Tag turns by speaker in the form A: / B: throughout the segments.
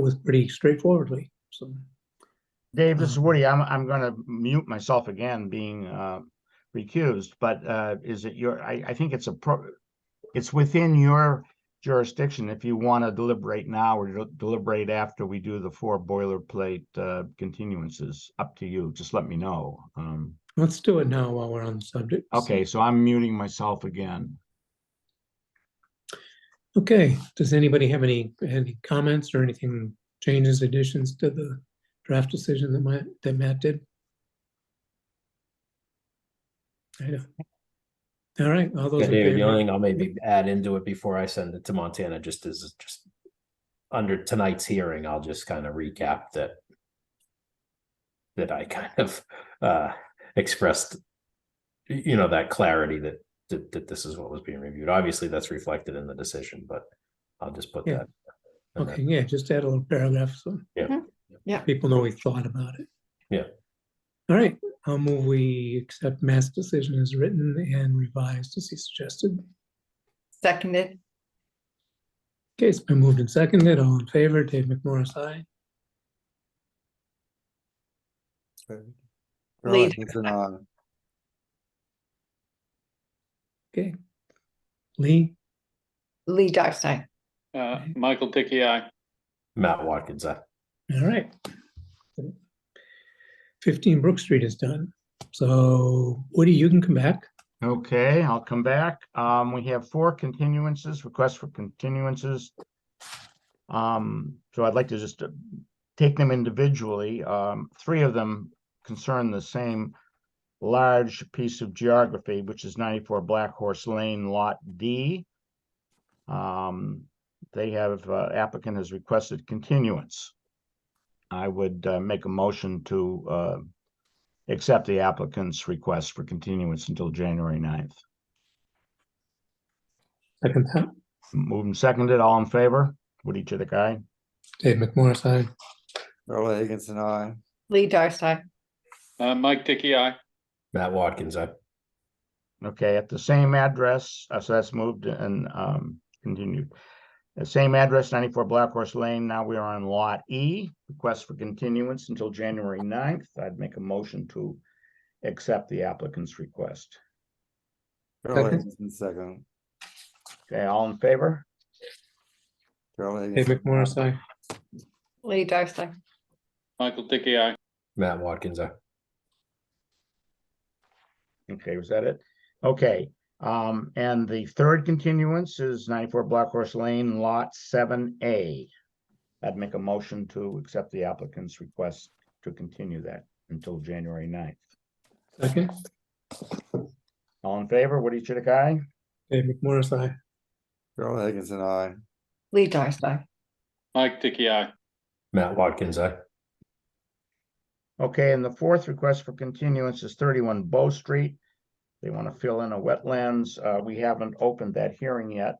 A: with pretty straightforwardly, so.
B: Dave, this is
A: Um,
B: Woody. I'm, I'm gonna mute myself again, being, uh, recused, but, uh, is it your, I, I think it's a pro, it's within your jurisdiction if you wanna deliberate now or del- deliberate after we do the four boilerplate, uh, continuances. Up to you. Just let me know. Um,
A: Let's do it now while we're on the subject.
B: okay, so I'm muting myself again.
A: Okay, does anybody have any, any comments or anything, changes, additions to the draft decision that Matt, that Matt did? I know. All right, all those
C: Yeah,
A: in
C: David, the only
A: favor?
C: thing I'll maybe add into it before I send it to Montana just is just under tonight's hearing, I'll just kind of recap that that I kind of uh expressed y- you know, that clarity that that, that this is what was being reviewed. Obviously, that's reflected in the decision, but I'll just put
A: Yeah.
C: that. and then-
A: Okay, yeah, just add a little paragraph so.
C: Yeah.
D: Mhm. Yeah.
A: People know we thought about it.
C: Yeah.
A: All right, I'll move we accept Matt's decision as written and revised as he suggested.
D: Seconded,
A: Okay, it's been moved and seconded. All in favor, Dave McMorris, aye.
E: Charlotte
D: Lead.
E: Gibson, aye.
A: Okay. Lee,
D: Lee Darcey.
F: Uh, Michael Dickey, aye.
C: Matt Watkins, uh,
A: all right. Fifteen Brook Street is done. So Woody, you can come back.
B: Okay, I'll come back. Um, we have four continuances, requests for continuances. Um, so I'd like to just uh, take them individually. Um, three of them concern the same large piece of geography, which is ninety-four Black Horse Lane Lot D. Um, they have uh, applicant has requested continuance. I would uh, make a motion to uh, accept the applicant's request for continuance until January 9th.
A: Second that.
B: Moved and seconded, all in favor? Woody Chitik, aye.
A: Dave McMorris, aye.
E: Charlotte Higginson, aye.
D: Lee Darcey.
F: Uh, Mike Dickey, aye.
C: Matt Watkins, uh,
B: Okay, at the same address, uh, so that's moved and um continued. The same address, ninety-four Black Horse Lane, now we are on Lot E, request for continuance until January 9th. I'd make a motion to accept the applicant's request.
E: Charlotte
A: Second.
E: Higginson, second.
B: Okay, all in favor?
E: Charlotte
A: Dave
E: Higginson, aye.
A: McMorris, aye.
D: Lee Darcey.
F: Michael Dickey, aye.
C: Matt Watkins, uh,
B: Okay, was that it? Okay, um, and the third continuance is ninety-four Black Horse Lane, Lot seven A. I'd make a motion to accept the applicant's request to continue that until January 9th.
A: Second,
B: All in favor, Woody Chitik, aye?
A: Dave McMorris, aye.
E: Charlotte Higginson, aye.
D: Lee Darcey.
F: Mike Dickey, aye.
C: Matt Watkins, uh,
B: Okay, and the fourth request for continuance is thirty-one Bow Street. They want to fill in a wetlands. Uh, we haven't opened that hearing yet.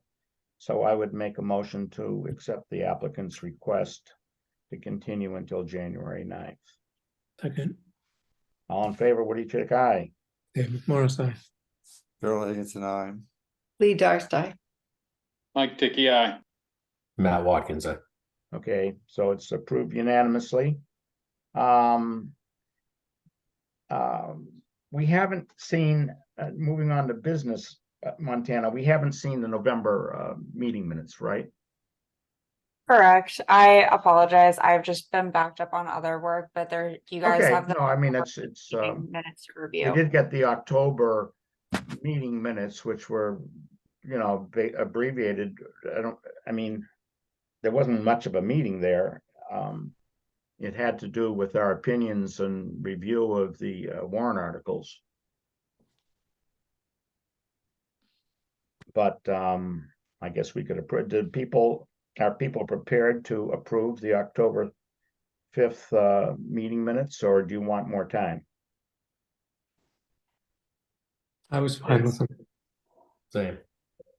B: So I would make a motion to accept the applicant's request to continue until January 9th.
A: Second,
B: All in favor, Woody Chitik, aye.
A: Dave McMorris, aye.
E: Charlotte Higginson, aye.
D: Lee Darcey.
F: Mike Dickey, aye.
C: Matt Watkins, uh,
B: Okay, so it's approved unanimously. Um. um, we haven't seen, uh, moving on to business, uh, Montana, we haven't seen the November, uh, meeting minutes, right?
G: Correct. I apologize. I've just been backed up on other work, but there, you guys
B: Okay,
G: have the
B: no, I mean, it's, it's, um,
G: meeting minutes to
B: we
G: review.
B: did get the October meeting minutes, which were, you know, ba- abbreviated. I don't, I mean, there wasn't much of a meeting there. Um, it had to do with our opinions and review of the uh, warrant articles. But, um, I guess we could approve, did people, are people prepared to approve the October fifth, uh, meeting minutes, or do you want more time?
A: I was fine with him.
C: same.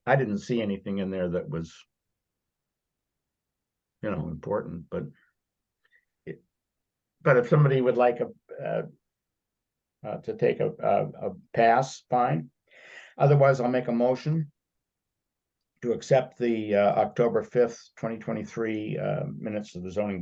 B: I didn't see anything in there that was. You know, important, but. it- But if somebody would like a, uh. Uh, to take a, a, a pass, fine. Otherwise, I'll make a motion. To accept the, uh, October fifth, twenty twenty-three, uh, minutes of the zoning